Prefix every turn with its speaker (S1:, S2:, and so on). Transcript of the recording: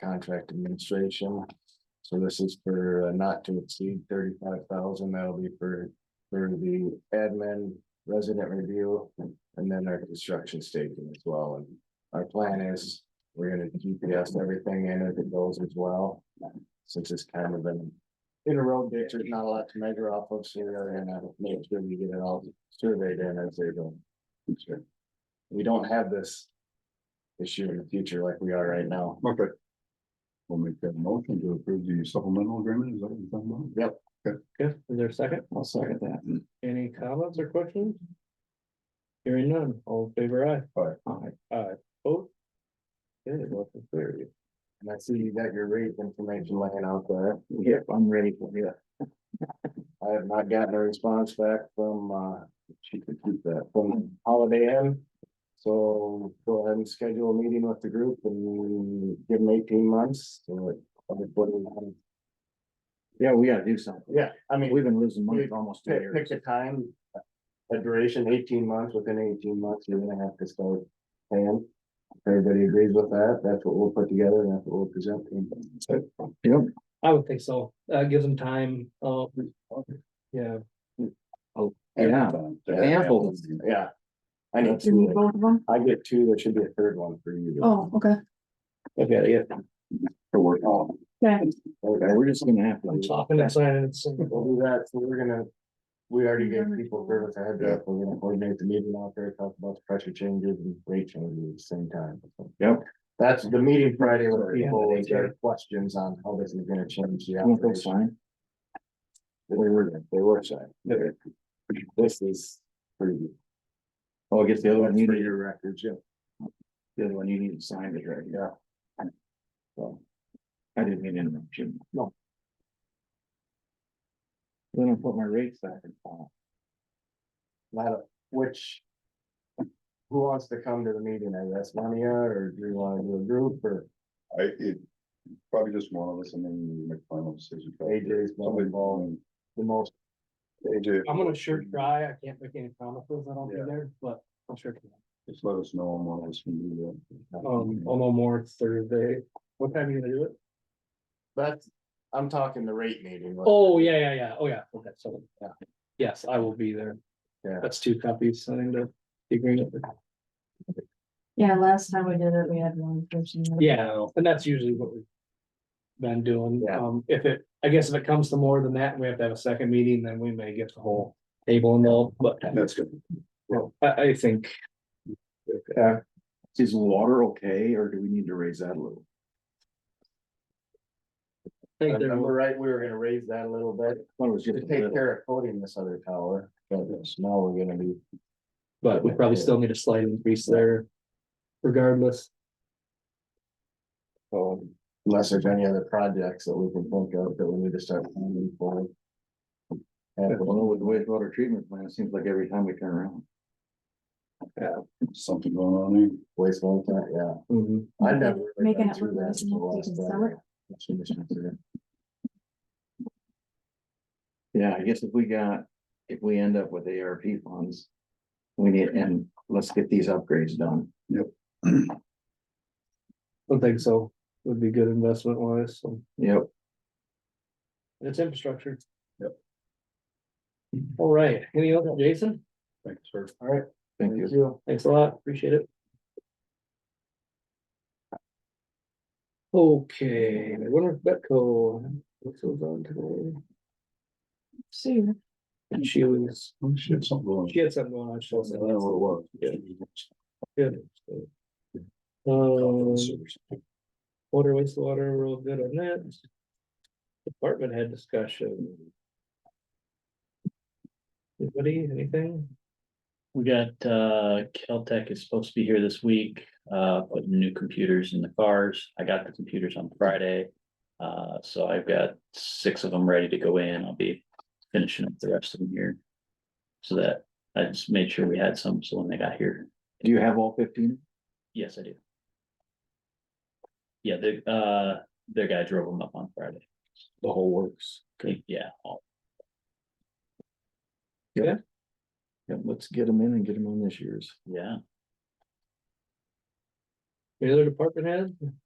S1: contract administration. So this is for uh, not to exceed thirty-five thousand, that'll be for, for the admin, resident review, and then our construction staking as well, and our plan is, we're gonna GPS everything in as it goes as well, since it's kind of been in a road ditch, there's not a lot to measure off of, so we're gonna make sure we get it all surveyed in as they go. Sure. We don't have this issue in the future like we are right now.
S2: Okay. We'll make that motion to approve the supplemental agreement, is that what you're talking about?
S3: Okay, is there a second?
S4: I'll second that.
S3: Any comments or questions? Hearing none, all in favor aye.
S4: Aye.
S3: Aye. Vote. Okay, motion carried.
S1: And I see you got your rate information laying out there.
S4: Yep, I'm ready for you.
S1: I have not gotten a response back from, uh, she could keep that from Holiday Inn. So go ahead and schedule a meeting with the group and give them eighteen months. so like, everybody-
S4: Yeah, we gotta do something.
S1: Yeah, I mean,
S4: We've been losing money for almost two
S1: pick,
S4: years.
S1: pick a time, a duration, eighteen months, within eighteen months, you're gonna have to start paying. If Everybody agrees with that, that's what we'll put together, and that's what we'll present.
S4: Yep,
S3: I would think so. Uh, gives them time, uh, yeah,
S4: yeah, ample.
S1: Yeah. I need two, I get two, there should be a third one for you.
S5: Oh, okay,
S3: okay, yeah.
S2: To work on.
S5: okay.
S4: Okay, we're just gonna have to.
S3: I'm talking and signing and saying,
S1: We'll do that, so we're gonna, we already gave people service ahead of, we're gonna coordinate the meeting out there, talk about the pressure changes and rate changes at the same time.
S4: Yep.
S1: That's the meeting Friday with
S4: Sorry, yeah,
S1: people,
S4: they
S1: with their questions on how this is gonna change the
S4: Want
S1: operation.
S4: those signed?
S1: They were, they were signed.
S4: Okay.
S1: This is pretty good.
S4: Oh, I guess the other one, you
S1: For
S4: need,
S1: your records, yeah.
S4: the other one you need to sign it, right?
S1: Yeah.
S4: So. I didn't mean to interrupt you.
S1: No.
S4: Then I put my rates back in file.
S1: Not, which. Who wants to come to the meeting, I guess, Mania, or do you wanna do a group, or
S2: I, it, probably just one of us and then we make final decision.
S1: AJ's more involved, the most,
S2: AJ.
S3: I'm gonna sure try. I can't make any promises. I don't be there, but I'm sure.
S2: Just let us know and one of us can do
S3: Um,
S1: oh.
S3: I'll know more Thursday. What time are you gonna do it?
S1: that's, I'm talking the rate meeting. like-
S3: Oh, yeah, yeah, yeah. Oh, yeah. Okay, so,
S1: Yeah.
S3: Yes, I will be there.
S1: Yeah.
S3: That's two copies. I think the the agreement.
S5: Yeah, last time we did it, we had one person.
S3: Yeah, and that's usually what we've been doing.
S1: Yeah.
S3: Um, if it, I guess if it comes to more than that, and we have to have a second meeting, then we may get the whole table involved, but
S2: that. That's good.
S3: well, I, I think.
S1: Yeah,
S4: Is water okay, or do we need to raise that a little?
S1: I
S3: I think there
S1: remember
S3: were-
S1: right, we were gonna raise that a little bit,
S4: Thought it was
S1: to
S4: just a
S1: take
S4: little.
S1: care of coating this other tower, but now we're gonna be,
S3: But we probably still need a slight increase there regardless.
S1: um, Unless there's any other projects that we can think of that we need to start planning for. And
S4: Well, with the wastewater treatment plant, it seems like every time we turn around.
S2: Something going on there.
S1: waste one time, yeah.
S3: Mhm.
S1: I never. really
S5: Making
S1: got
S5: it
S1: through
S5: look
S1: that
S5: nice and
S1: until
S5: taking
S1: last
S5: summer.
S1: night. I shouldn't have done that.
S4: Yeah, I guess if we got, if we end up with ARP funds, we need, and let's get these upgrades done.
S3: I think so. Would be good investment wise, so
S4: Yep,
S3: it's infrastructure.
S2: Yep.
S3: All right, any other, Jason?
S2: Thanks, sir.
S1: All right,
S4: thank you.
S3: Thanks a lot, appreciate it. Okay, Winter Betco, what's going on today?
S5: Soon.
S3: And she was,
S2: Oh, shit, something going on.
S3: she had something going on, she
S2: I don't know
S3: was.
S2: what it
S3: Good.
S2: was.
S3: Um, water, wastewater, real good on that. Department head discussion. Anybody, anything?
S6: We got, uh, Caltech is supposed to be here this week, uh, putting new computers in the cars. I got the computers on Friday. Uh, so I've got six of them ready to go in. I'll be finishing up the rest of them here. So that I just made sure we had some, so when they got here,
S4: Do you have all fifteen?
S6: yes, I do. Yeah, the, uh, their guy drove them up on Friday.
S4: The whole works.
S6: Yeah, all-
S4: Yeah, let's get them in and get them on this year's.
S6: yeah.
S3: Any other department head?